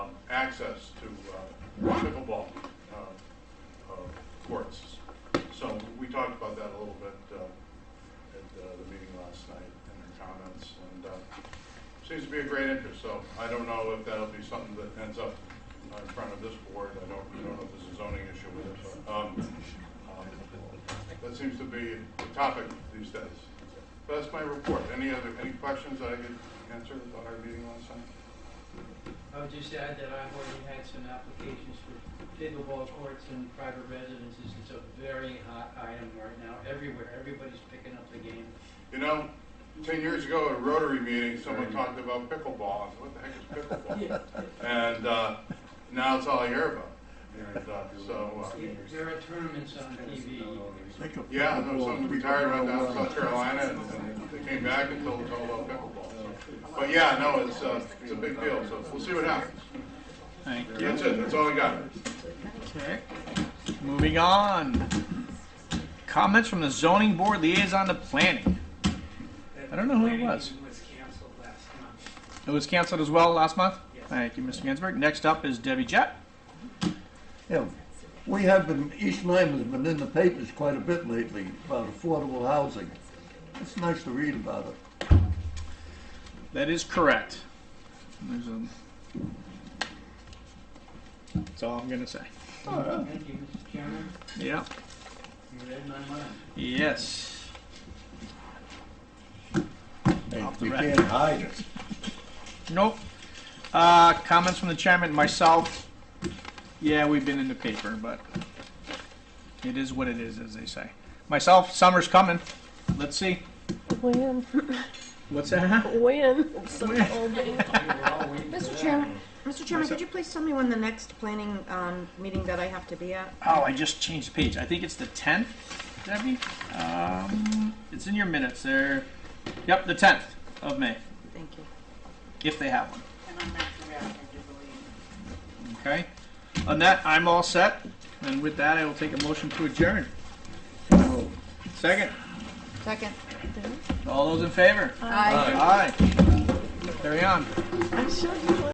um, access to uh, pickleball uh, uh, courts. So we talked about that a little bit uh, at uh, the meeting last night in their comments, and uh, seems to be a great interest, so I don't know if that'll be something that ends up uh, in front of this board, I don't, I don't know if there's a zoning issue with it, but um, um, that seems to be the topic these days. But that's my report. Any other, any questions that I could answer about our meeting last night? I would just add that I've already had some applications for pickleball courts in private residences. It's a very hot item right now, everywhere, everybody's picking up the game. You know, ten years ago at a Rotary meeting, someone talked about pickleball. I said, what the heck is pickleball? And, uh, now it's all I hear about. And, uh, so, uh, There are tournaments on TV. yeah, there was someone retired right down in South Carolina and and they came back and told us all about pickleball. But yeah, no, it's, uh, it's a big deal, so we'll see what happens. Thank you. That's it, that's all I got. Okay. Moving on. Comments from the zoning board liaison to planning. I don't know who it was. Planning meeting was canceled last month. It was canceled as well last month? Yes. Thank you, Mr. Ginsburg. Next up is Debbie Jett. Yeah, we have been, East Lyme has been in the papers quite a bit lately about affordable housing. It's nice to read about it. That is correct. There's a- That's all I'm gonna say. Oh, Thank you, Mr. Chairman. Yeah. You read my mind. Yes. Hey, Off the we rack. can't hide it. Nope. Uh, comments from the chairman, and myself. Yeah, we've been in the paper, but it is what it is, as they say. Myself, summer's coming. Let's see. When? What's that? When? Mr. Chairman, Mr. Chairman, could you please tell me when the next planning um, meeting that I have to be at? Oh, I just changed the page. I think it's the 10th, Debbie. Um, it's in your minutes there. Yep, the 10th of May, Thank you. if they have one. Okay. On that, I'm all set. And with that, I will take a motion to adjourn. Second. Second. All those in favor? Aye. Aye. Carry on. I'm sure you